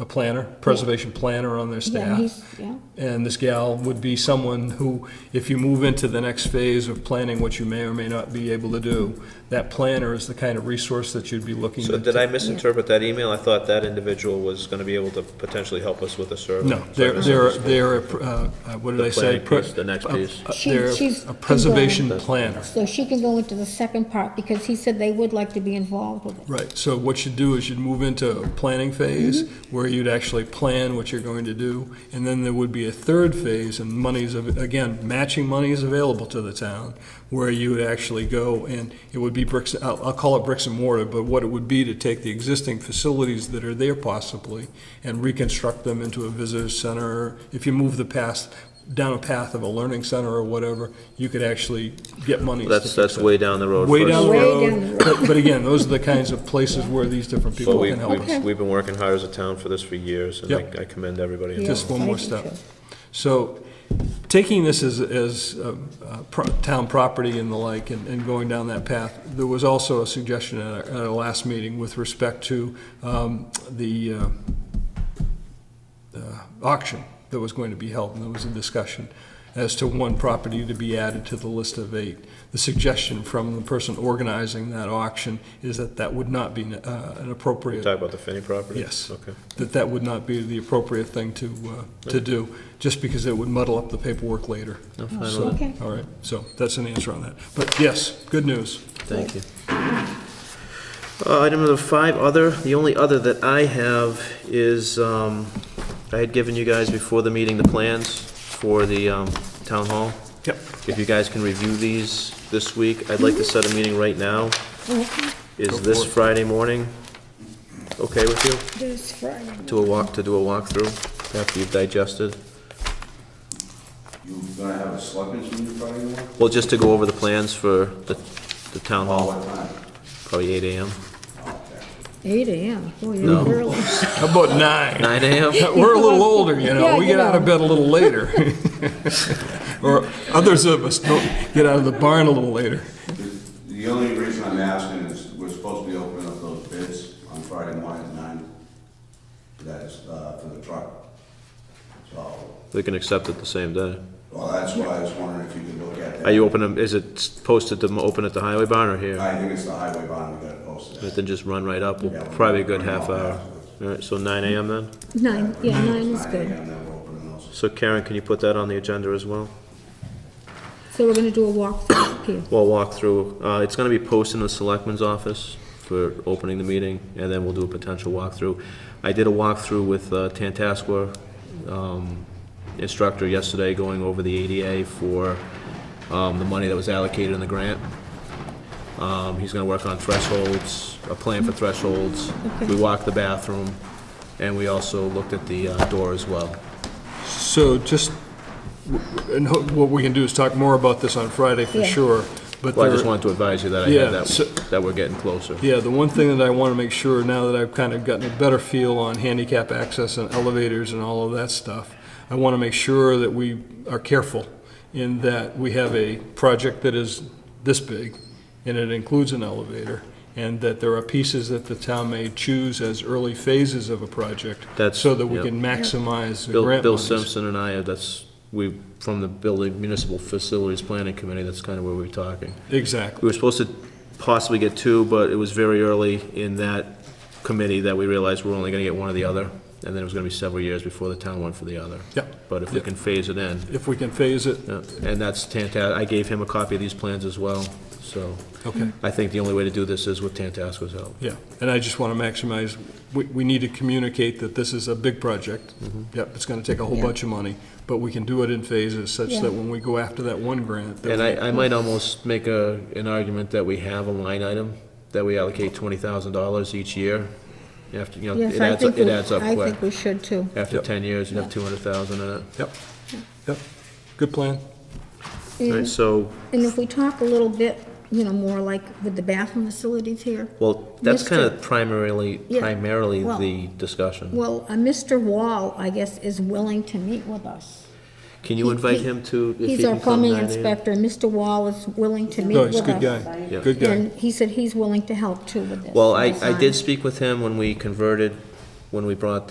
a planner, preservation planner on their Yeah, he's, staff. yeah, And this gal would be someone who, if you move into the next phase of planning what you may or may not be able to do, that planner is the kind of resource that you'd be looking to. So did I misinterpret that email? I thought that individual was gonna be able to potentially help us with a survey. No, So I they're, they're, misunderstood. they're, a, uh, uh, what did The I say? planning Pre- piece, the next uh, piece. uh, She- They're she's- a preservation planner. so she can go into the second part, because he said they would like to be involved with it. Right, so what you do is you'd move into a planning phase, Mm-hmm. where you'd actually plan what you're going to do, and then there would be a third phase, and monies, of again, matching money is available to the town, where you would actually go, and it would be bricks, I'll, I'll call it bricks and mortar, but what it would be to take the existing facilities that are there possibly, and reconstruct them into a visitor center, if you move the past, down a path of a learning center or whatever, you could actually get money. That's, that's way down the road. Way for us. down the Way road, down the but, but again, those are the kinds of places where these different But people we, can help. we've, we've been working hard as a town for this for years, and Yep. I I commend everybody. Yeah, Just one I more do step. too. So, taking this as, as uh, uh, pro- town property and the like, and, and going down that path, there was also a suggestion at our, at our last meeting with respect to, um, the, uh, uh, auction that was going to be held, and there was a discussion as to one property to be added to the list of eight. The suggestion from the person organizing that auction is that that would not be, uh, an appropriate Talk about the Finney property? Yes. Okay. that that would not be the appropriate thing to, uh, to do, just because it would muddle up the paperwork later. So, Okay. All right, so that's an answer on that. But yes, good news. Thank you. Uh, Item number five, other, the only other that I have is, um, I had given you guys before the meeting the plans for the um, town hall. Yep. If you guys can review these this week, I'd like to set a meeting right now. Is this Friday morning okay with you? This Friday. To a walk, to do a walkthrough after you've digested? You gonna have a selectmen's meeting Friday morning? Well, just to go over the plans for the, the town hall, What time? probably eight AM. Eight AM, boy, No. you're early. How about nine? Nine AM? We're a little older, you know, Yeah, we you get out of know. bed a little later. Or others of us don't get out of the barn a little later. The- The only reason I'm asking is we're supposed to be opening up those bids on Friday morning at nine. That is, uh, for the truck. So, They can accept it the same day. well, that's why I was wondering if you could look at that. Are you open, is it posted to open at the highway barn or here? I think it's the highway bond, we gotta post it. Then just run right up, probably a good half hour. All right, so nine AM then? Nine, yeah, nine is good. AM, then we're opening those. So Karen, can you put that on the agenda as well? So we're gonna do a walkthrough here. We'll walk through, uh, it's gonna be posted in the selectman's office for opening the meeting, and then we'll do a potential walkthrough. I did a walkthrough with uh, Tantascwa, um, instructor yesterday, going over the ADA for, um, the money that was allocated in the grant. Um, he's gonna work on thresholds, a plan for thresholds. We walked the bathroom, and we also looked at the uh, door as well. So just, and ho- what we can do is talk more about this on Friday for Yeah. sure, but Well, I just there- wanted to advise you that I Yeah, had so- that, that we're getting closer. Yeah, the one thing that I want to make sure, now that I've kind of gotten a better feel on handicap access and elevators and all of that stuff, I want to make sure that we are careful in that we have a project that is this big, and it includes an elevator, and that there are pieces that the town may choose as early phases of a project, That's- so that we yeah. can maximize the Bill, grant Bill monies. Simpson and I, uh, that's, we, from the Building Municipal Facilities Planning Committee, that's kind of where we were talking. Exactly. We were supposed to possibly get two, but it was very early in that committee that we realized we're only gonna get one or the other, and then it was gonna be several years before the town went for the other. Yeah. But if we Yeah. can phase it in, If we can phase it, yeah, and that's Tantas, I gave him a copy of these plans as well, so. okay. I think the only way to do this is with Tantasco's help. Yeah, and I just want to maximize, we, we need to communicate that this is a big project. Mm-hmm. Yep, it's going to take a whole Yeah. bunch of money, but we can do it in phases such Yeah. that when we go after that one grant. that And we- I, I might almost make a, an argument that we have a line item, that we allocate twenty thousand dollars each year. After, you know, Yes, it I adds, up- think, it we- adds up I quick. think we should too. After Yep. ten years, you have two hundred thousand in it. Yep, yep, good plan. All right, And so, and if we talk a little bit, you know, more like with the bathroom facilities here, well, that's kind Mr. of primarily, Yeah, primarily well- the discussion. well, uh, Mr. Wall, I guess, is willing to meet with us. Can you he- invite he- him to, if he He's our can come plumbing 9 a.m.? inspector, Mr. Wall is willing to meet No, with us. he's a good guy, Yeah. good guy. And he said he's willing to help too with this. Well, I, I design. did speak with him when we converted, when we brought